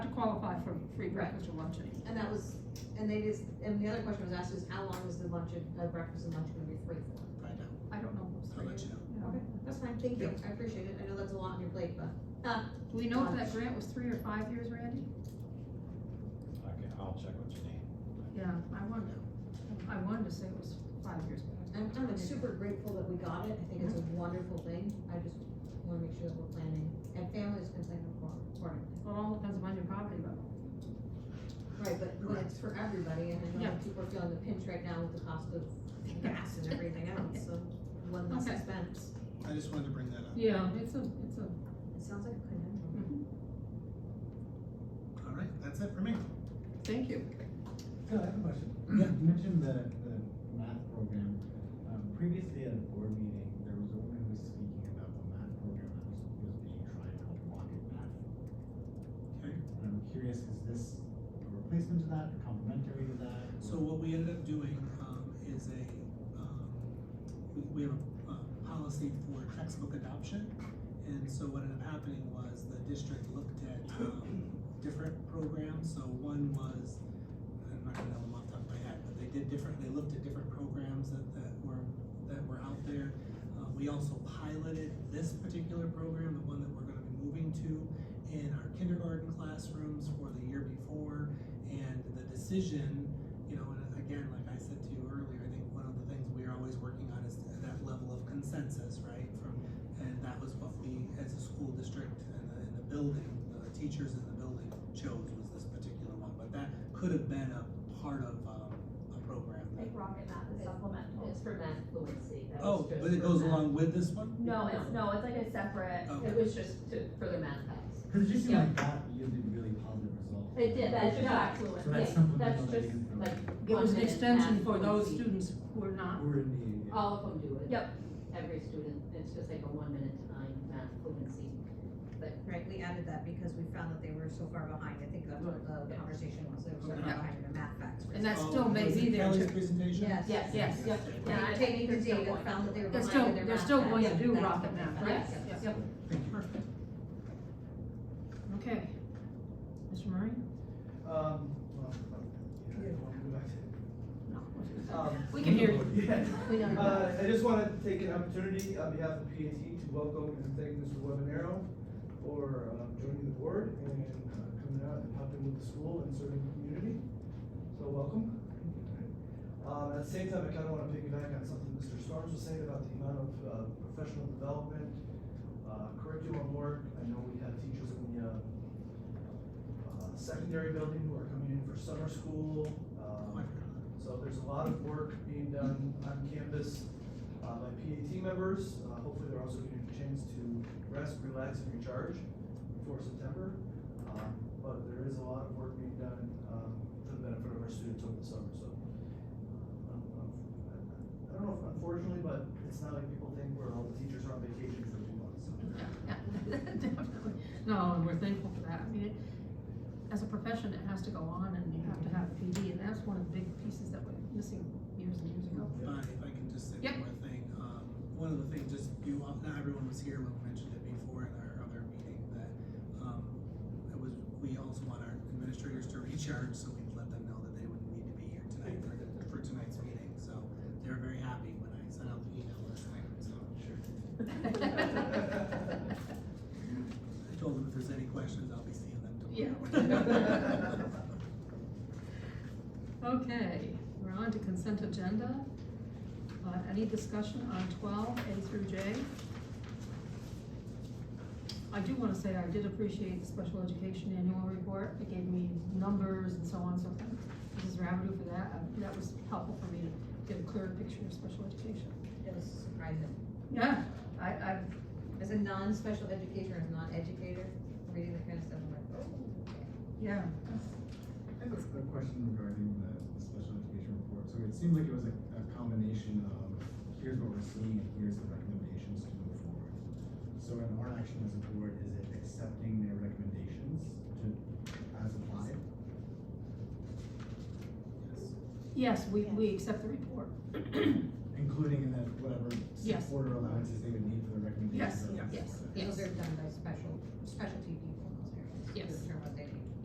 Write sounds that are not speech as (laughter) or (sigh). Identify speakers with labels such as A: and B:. A: free breakfast or luncheon.
B: And that was, and they just, and the other question was asked is how long is the lunch, and- uh, breakfast and lunch gonna be free for?
C: Find out.
A: I don't know what's
C: I'll
A: free.
C: let you know.
A: Yeah.
B: That's fine, thank you, I appreciate it, I know that's a lot on your plate, but,
A: Do we know if that grant was three or five years, Randy?
D: Okay, I'll check what you need.
A: Yeah, I wanted, I wanted to say it was five years. but I-
B: I'm, Mm-hmm. I'm super grateful that we got it, I think it's a wonderful thing, I just wanna make sure that we're planning, and families can plan accordingly.
A: Well, it all depends upon your property level.
B: Right, but when it's for everybody, and I know
A: Yeah.
B: people are feeling the pinch right now with the cost (laughs) of gas and everything else, so one less
A: Okay.
B: expense.
C: I just wanted to bring that up.
A: Yeah, it's a, it's a.
B: It sounds like a good idea.
A: Mm-hmm.
C: All right, that's it for me.
A: Thank you.
E: So I have a question.
D: Mm-hmm.
E: You mentioned the, the math program. Um, previously at a board meeting, there was a woman who was speaking about the math program that was, was being tried out, Rocket Math.
C: Okay.
E: And I'm curious, is this a replacement to that, or complementary to that? or-
C: So what we ended up doing, um, is a, um, we, we have a, a policy for textbook adoption. And so what ended up happening was the district looked at, um, different programs, so one was, I'm not gonna know them off the top of my head, but they did different, they looked at different programs that, that were, that were out there. Uh, we also piloted this particular program, the one that we're gonna be moving to, in our kindergarten classrooms for the year before. And the decision, you know, and again, like I said to you earlier, I think one of the things we are always working on is that level of consensus, right? From, and that was what we, as a school district and the, and the building, the teachers in the building chose was this particular one. But that could have been a part of, um, a program.
F: Like rocket math is supplemental.
B: It's for math fluency, that
C: Oh,
B: was just.
C: but it
B: for
C: goes
B: math.
C: along with this one?
F: No, it's, no, it's like a separate,
C: Okay.
B: It was just to, for the math class.
E: Cause it just seemed like
F: Yeah.
E: that yielded really positive results.
B: It did,
F: that's
B: Yeah.
E: So
F: just affluent.
E: that's
B: yeah,
E: supplemental
B: that's
E: that you
B: just,
E: can throw
B: like,
E: in.
A: It was an
B: One-minute
A: extension
B: math
A: for those
B: fluency.
A: students who are not.
E: We're in the.
B: All of them do it.
F: Yep.
B: Every student, it's just like a one minute time math fluency. But,
G: Right, we added that because we found that they were so far behind, I think that's what the conversation was, they were so far
C: Yeah.
G: behind in the math facts.
A: And that
C: Oh,
A: still may
C: was
A: be
C: it
A: there
C: Kelly's
A: too.
C: presentation?
G: Yes.
A: Yes, yes,
C: Yeah.
F: Yeah, I-
G: Taking the
F: they're still
G: data,
F: going.
G: found that they were
A: They're
G: behind
A: still-
G: in their
A: they're
G: math
A: still going to
G: facts.
A: do
G: That's
A: rocket
G: what they
A: math,
G: found.
A: right?
G: Yes.
A: Yes.
F: Yep.
C: Perfect.
A: Okay. Mr. Murray?
H: Um, well, yeah, I don't wanna go back to-
A: No.
H: um,
A: We can hear
H: (laughs) yeah.
B: We know.
H: Uh, I just wanted to take an opportunity on behalf of P A T to welcome and thank Mr. Webanero for um, joining the board and uh, coming out and helping with the school and serving the community. So welcome. Um, at the same time, I kinda wanna piggyback on something Mr. Storms was saying about the amount of, uh, professional development, uh, curriculum work. I know we have teachers in the, uh, uh, secondary building who are coming in for summer school.
C: Oh,
H: Um,
C: I forgot.
H: so there's a lot of work being done on campus uh, by PAT members. Uh, Hopefully, they're also getting a chance to rest, relax, and recharge before September. Um, But there is a lot of work being done um, for the benefit of our students over the summer, so. um, um, I I don't know if unfortunately, but it's not like people think where all the teachers are on vacation for two months.
A: Yeah, yeah, (laughs) definitely. No, and we're thankful for that. I mean, it- as a profession, it has to go on and you have to have PD, and that's one of the big pieces that was missing years and years ago.
C: If I, if I can just say
A: Yep.
C: one more thing, um, one of the things, just you, all- not everyone was here, we mentioned it before in our other meeting, that, um, it was, we also want our administrators to recharge, so we let them know that they wouldn't need to be here tonight for, for tonight's meeting, so they were very happy when I sent out the email last night, so. Sure.
A: (laughs)
C: I told them if there's any questions, I'll be seeing them tomorrow.
A: Yeah. (laughs)
C: (laughs)
A: Okay, we're on to consent agenda. Uh, any discussion on twelve, A through J? I do wanna say I did appreciate the special education annual report. It gave me numbers and so on, so Mrs. Rabideau for that. Uh, That was helpful for me to get a clearer picture of special education.
G: It was surprising,
A: Yeah, I, I,
G: as a non-special educator, as a non-educator, reading that kind of stuff, I'm like, oh.
A: yeah,
E: I have a a question regarding the, the special education report. So it seemed like it was a, a combination of, here's what we're seeing, and here's the recommendations to move forward. So in our action as a board, is it accepting their recommendations to, as applied?
A: yes, we, we accept the report.
E: Including in that whatever
A: Yes.
E: support or allowances they would need for the
A: Yes,
E: recommendations? that are
C: yes,
A: yes.
E: supported?
G: Those are done by special, specialty people in those areas.
A: Yes.
G: They're